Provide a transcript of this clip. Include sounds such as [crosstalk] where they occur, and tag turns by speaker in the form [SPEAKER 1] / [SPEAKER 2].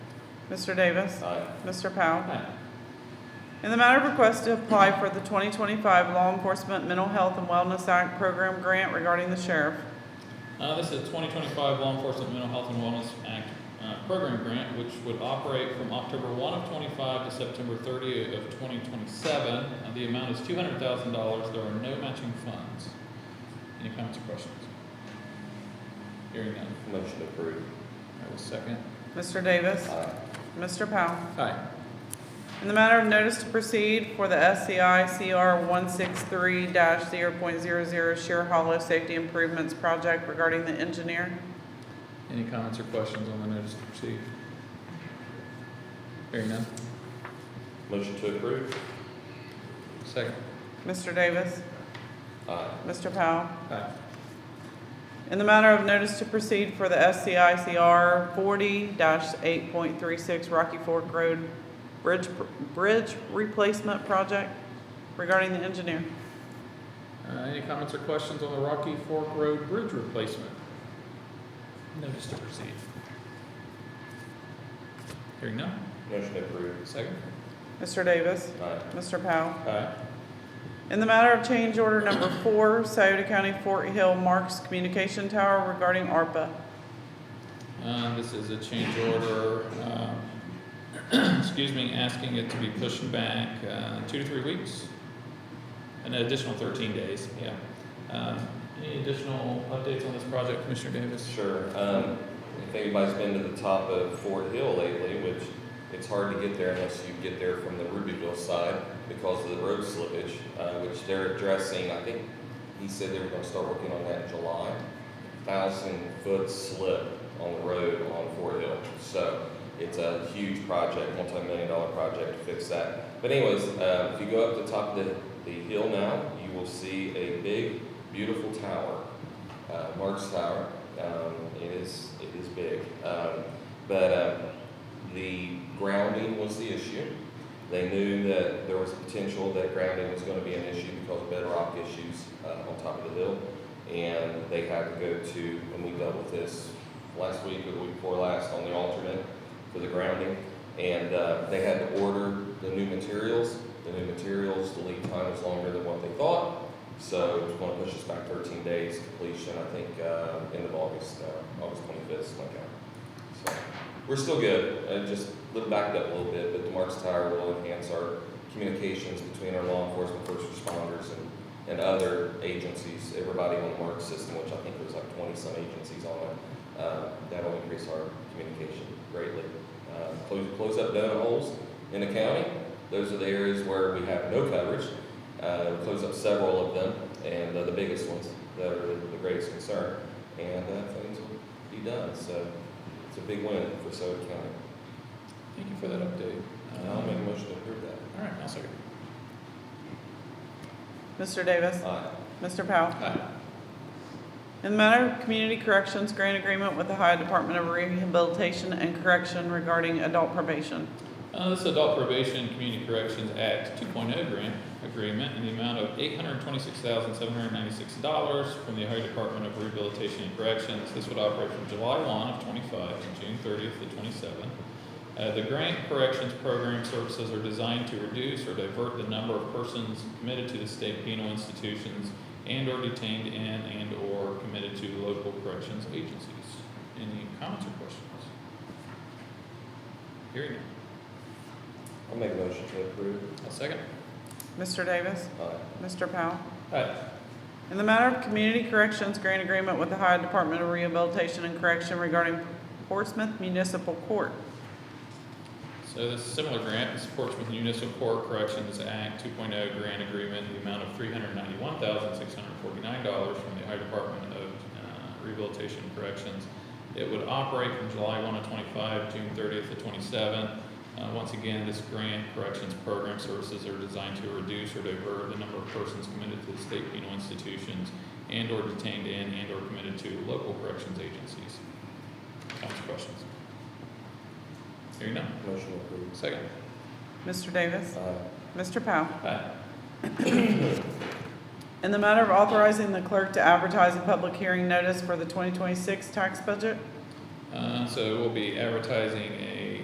[SPEAKER 1] Mr. Davis.
[SPEAKER 2] Aye.
[SPEAKER 1] Mr. Powell.
[SPEAKER 2] Aye.
[SPEAKER 1] In the matter of request to apply for the 2025 Law Enforcement Mental Health and Wellness Act Program Grant regarding the sheriff.
[SPEAKER 2] Uh, this is a twenty twenty-five Law Enforcement Mental Health and Wellness Act, uh, program grant, which would operate from October one of twenty-five to September thirty of twenty twenty-seven. Uh, the amount is two hundred thousand dollars. There are no matching funds. Any comments or questions? Hearing none.
[SPEAKER 3] Motion approved.
[SPEAKER 2] I will second.
[SPEAKER 1] Mr. Davis.
[SPEAKER 3] Aye.
[SPEAKER 1] Mr. Powell.
[SPEAKER 2] Aye.
[SPEAKER 1] In the matter of notice to proceed for the SCI CR 163-0.00 Sheer Hollow Safety Improvements Project regarding the engineer.
[SPEAKER 2] Any comments or questions on the notice to proceed? Hearing none.
[SPEAKER 3] Motion to approve.
[SPEAKER 2] Second.
[SPEAKER 1] Mr. Davis.
[SPEAKER 3] Aye.
[SPEAKER 1] Mr. Powell.
[SPEAKER 2] Aye.
[SPEAKER 1] In the matter of notice to proceed for the SCI CR 40-8.36 Rocky Fork Road Bridge, Bridge Replacement Project regarding the engineer.
[SPEAKER 2] Uh, any comments or questions on the Rocky Fork Road Bridge replacement? Notice to proceed. Hearing none,
[SPEAKER 3] Motion approved.
[SPEAKER 2] second.
[SPEAKER 1] Mr. Davis.
[SPEAKER 3] Aye.
[SPEAKER 1] Mr. Powell.
[SPEAKER 2] Aye.
[SPEAKER 1] In the matter of change order number four, Scioto County Fort Hill Marks Communication Tower regarding ARPA.
[SPEAKER 2] Uh, this is a change order, um, [clears throat] excuse me, asking it to be pushed back, uh, two to three weeks. An additional thirteen days, yeah. Um any additional updates on this project, Commissioner Davis?
[SPEAKER 3] Sure. Um, if anybody's been to the top of Fort Hill lately, which it's hard to get there unless you get there from the Rubyville side because of the road slippage, uh, which they're addressing, I think he said they were gonna start working on that in July. Thousand foot slip on the road on Fort Hill. So it's a huge project, multi-million dollar project to fix that. But anyways, uh, if you go up the top of the, the hill now, you will see a big, beautiful tower uh, Mark's Tower. Um, it is it is big, um, but um, the grounding was the issue. They knew that there was potential that grounding was going to be an issue because of bedrock issues uh, on top of the hill, and they had to go to and we dealt with this last week or the week before last on the alternate for the grounding, and uh, they had to order the new materials. The new materials, the lead time was longer than what they thought. So it's gonna push us back thirteen days completion, I think, uh, end of August, uh, August twenty-fifth, something like that. So, we're still good, uh, just a little backed up a little bit, but the Marks Tower will enhance our communications between our law enforcement, first responders, and, and other agencies, everybody on the Marks system, which I think there's like twenty-some agencies on it. Uh, that'll increase our communication greatly. Uh, close, close up donut holes in the county, those are the areas where we have no coverage, uh, close up several of them, and uh, the biggest ones that are the greatest concern, and uh, things will be done. So it's a big win for Soda County.
[SPEAKER 2] Thank you for that update.
[SPEAKER 3] And I'll make a motion to approve that.
[SPEAKER 2] All right, I'll second.
[SPEAKER 1] Mr. Davis.
[SPEAKER 3] Aye.
[SPEAKER 1] Mr. Powell.
[SPEAKER 2] Aye.
[SPEAKER 1] In the matter of community corrections grant agreement with the Ohio Department of Rehabilitation and Correction regarding adult probation.
[SPEAKER 2] Uh, this is Adult Probation and Community Corrections Act two oh grant agreement in the amount of eight hundred twenty-six thousand, seven hundred ninety-six dollars from the Ohio Department of Rehabilitation and Corrections. This would operate from July one of twenty-five to June thirtieth of twenty-seven. Uh, the grant corrections program services are designed to reduce or divert the number of persons committed to the state penal institutions and or detained in and or committed to local corrections agencies. Any comments or questions? Hearing none.
[SPEAKER 3] I'll make a motion to approve.
[SPEAKER 2] I'll second.
[SPEAKER 1] Mr. Davis.
[SPEAKER 3] Aye.
[SPEAKER 1] Mr. Powell.
[SPEAKER 2] Aye.
[SPEAKER 1] In the matter of community corrections grant agreement with the Ohio Department of Rehabilitation and Correction regarding Portsmouth Municipal Court.
[SPEAKER 2] So this similar grant is Portsmouth Municipal Court Corrections Act 2.0 grant agreement, in the amount of $391,649 from the Ohio Department of uh, Rehabilitation and Corrections. It would operate from July 1 to 25, June 30th to 27. Uh, Once again, this grant corrections program services are designed to reduce or divert the number of persons committed to the state penal institutions and/or detained in and/or committed to local corrections agencies. Comments, or questions? Hearing none.
[SPEAKER 3] Motion approved.
[SPEAKER 2] Second.
[SPEAKER 1] Mr. Davis.
[SPEAKER 3] Aye.
[SPEAKER 1] Mr. Powell.
[SPEAKER 2] Aye.
[SPEAKER 1] In the matter of authorizing the clerk to advertise a public hearing notice for the 2026 tax budget.
[SPEAKER 2] Uh, so we'll be advertising a